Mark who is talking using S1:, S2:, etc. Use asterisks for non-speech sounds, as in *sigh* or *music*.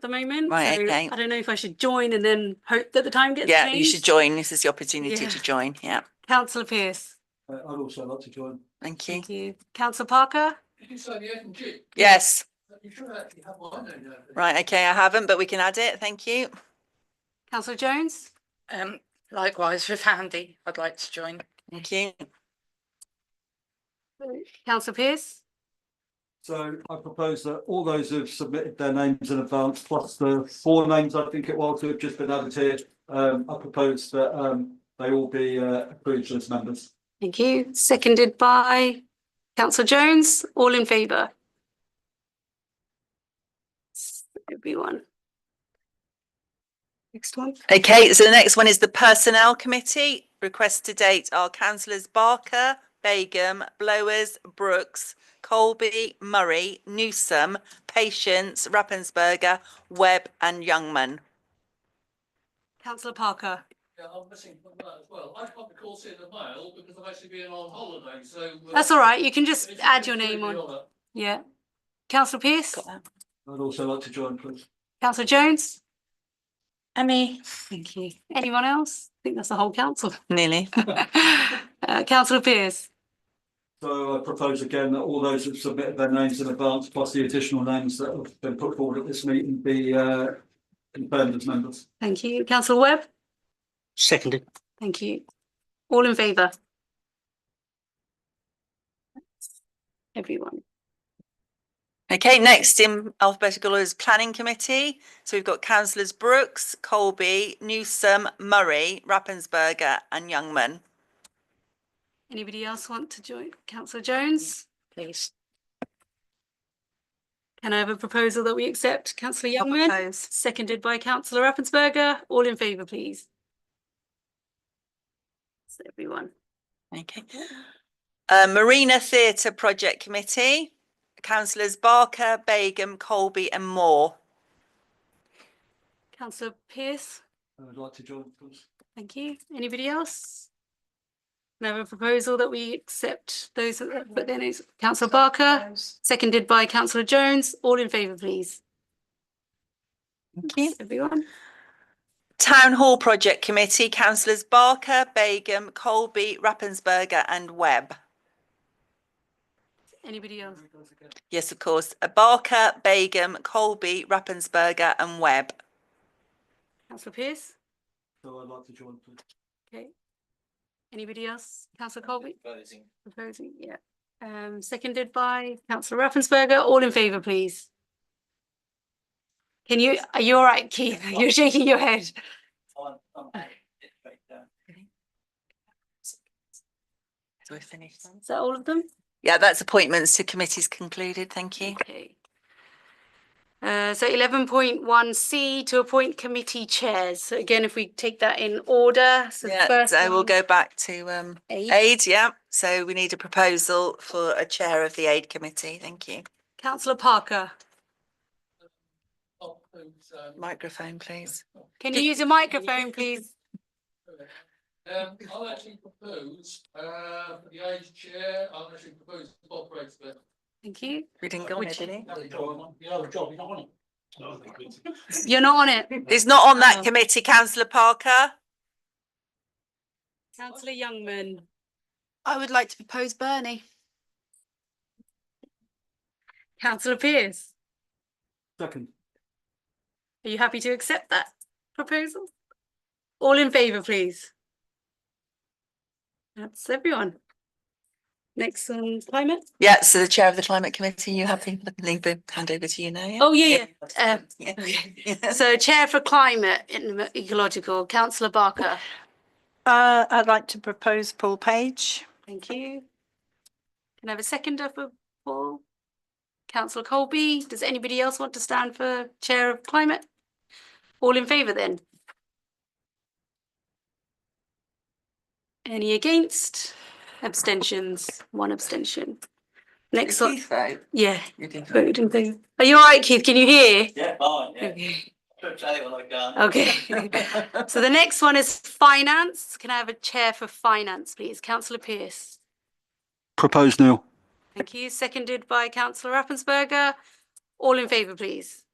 S1: the moment.
S2: Right,
S1: so
S2: okay.
S1: I don't know if I should join and then hope that the time gets
S2: Yeah, you should
S1: changed.
S2: join. This is the opportunity
S1: Yeah.
S2: to join. Yeah,
S1: Councillor Pearce,
S3: Uh, I'd also like to join.
S2: thank you.
S1: thank you. Councillor Parker,
S3: Did you say the F and G?
S2: Yes,
S3: You should actually have one, don't you?
S2: right, okay, I haven't, but we can add it. Thank you.
S1: councillor Jones,
S4: Um, likewise with Andy, I'd like to join.
S2: Thank you.
S1: councillor Pearce.
S3: So I propose that all those who've submitted their names in advance, plus the four names I think it was who have just been added here, um, I propose that, um, they all be, uh, approved as members.
S1: Thank you. Seconded by councillor Jones. All in favour? Everyone. Next one.
S2: Okay, so the next one is the Personnel Committee. Requests to date are councillors Barker, Begum, Blowers, Brooks, Colby, Murray, Newsom, Patience, Rappensberger, Webb and Youngman.
S1: Councillor Parker.
S3: Yeah, I'm missing from that as well. I can't recall seeing the mail because I've actually been on holiday, so. uh,
S1: That's all right. You can just add your name on. Yeah. Councillor Pearce,
S3: I'd also like to join, please.
S1: councillor Jones.
S4: Emmy,
S1: Thank you. Anyone else? I think that's the whole council. *laughs*
S2: Nearly.
S1: Uh, councillor Pearce,
S3: So I propose again that all those who've submitted their names in advance, plus the additional names that have been put forward at this meeting, be uh, confirmed as members.
S1: thank you. Councillor Webb,
S5: Seconded.
S1: thank you. All in favour? Everyone.
S2: Okay, next in alphabetical order is Planning Committee. So we've got councillors Brooks, Colby, Newsom, Murray, Rappensberger and Youngman.
S1: Anybody else want to join? Councillor Jones,
S4: please.
S1: can I have a proposal that we accept? Councillor
S2: I'll
S1: Youngman,
S2: propose.
S1: seconded by councillor Rappensberger. All in favour, please? That's everyone.
S2: Okay. Uh, Marina Theatre Project Committee, councillors Barker, Begum, Colby and Moore.
S1: Councillor Pearce,
S3: I'd like to join, please.
S1: Thank you. Anybody else? Can I have a proposal that we accept those, that that then it's councillor Barker, seconded by councillor Jones. All in favour, please.
S2: Thank you.
S1: Everyone.
S2: Town Hall Project Committee, councillors Barker, Begum, Colby, Rappensberger and Webb.
S1: Anybody else?
S2: Yes, of course, uh, Barker, Begum, Colby, Rappensberger and Webb.
S1: Councillor Pearce?
S3: So I'd like to join, please.
S1: Okay. Anybody else? Councillor Colby? Proposing, yeah. Um, seconded by councillor Raffensperger. All in favour, please. Can you, are you all right, Keith? *laughs* You're shaking your head.
S2: So we finished then?
S1: Is that all of them?
S2: Yeah, that's appointments to committees concluded. Thank you.
S1: Okay. Uh, so eleven point one C to appoint committee chairs. So again, if we take that in order, so the
S2: Yeah,
S1: first.
S2: so we'll
S1: one-
S2: go back to um
S1: Aid.
S2: aid, yeah. So we need a proposal for a chair of the aid committee. Thank you.
S1: Councillor Parker,
S2: Microphone, please.
S1: can you use your microphone, please?
S6: Um, I'll actually propose, uh, for the age chair, I'll actually propose Bob Breaksmith.
S1: Thank you.
S2: We didn't go on it, did he?
S1: You're not on *laughs* it.
S2: It's not on that
S7: Uh-huh.
S1: Oh.
S2: committee, councillor Parker.
S1: Councillor Youngman,
S8: I would like to propose Bernie.
S1: councillor Pearce,
S3: Second,
S1: are you happy to accept that proposal? All in favour, please. That's everyone. Next on climate.
S2: Yeah, so the chair of the climate committee, you happy? Let me Leave the hand over to you now, yeah?
S1: Oh, yeah, yeah. Um,
S2: Yeah.
S1: okay.
S2: *laughs* Yeah.
S1: So Chair for Climate and Ecological, councillor Barker.
S7: Uh, I'd like to propose Paul Page.
S1: Thank you. Can I have a seconder for Paul? Councillor Colby, does anybody else want to stand for Chair of Climate? All in favour then? Any against? Abstentions? One abstention.
S2: Did
S1: Next one,
S2: Keith vote?
S1: yeah.
S2: You did vote.
S1: voted in favour. Are you all right, Keith? Can you hear?
S6: Yeah, fine,
S1: Okay.
S6: Don't say what I've done. *laughs*
S1: Okay. So the next one is finance. Can I have a chair for finance, please? Councillor Pearce.
S3: propose Neil.
S1: Thank you. Seconded by councillor Rappensberger. All in favour, please.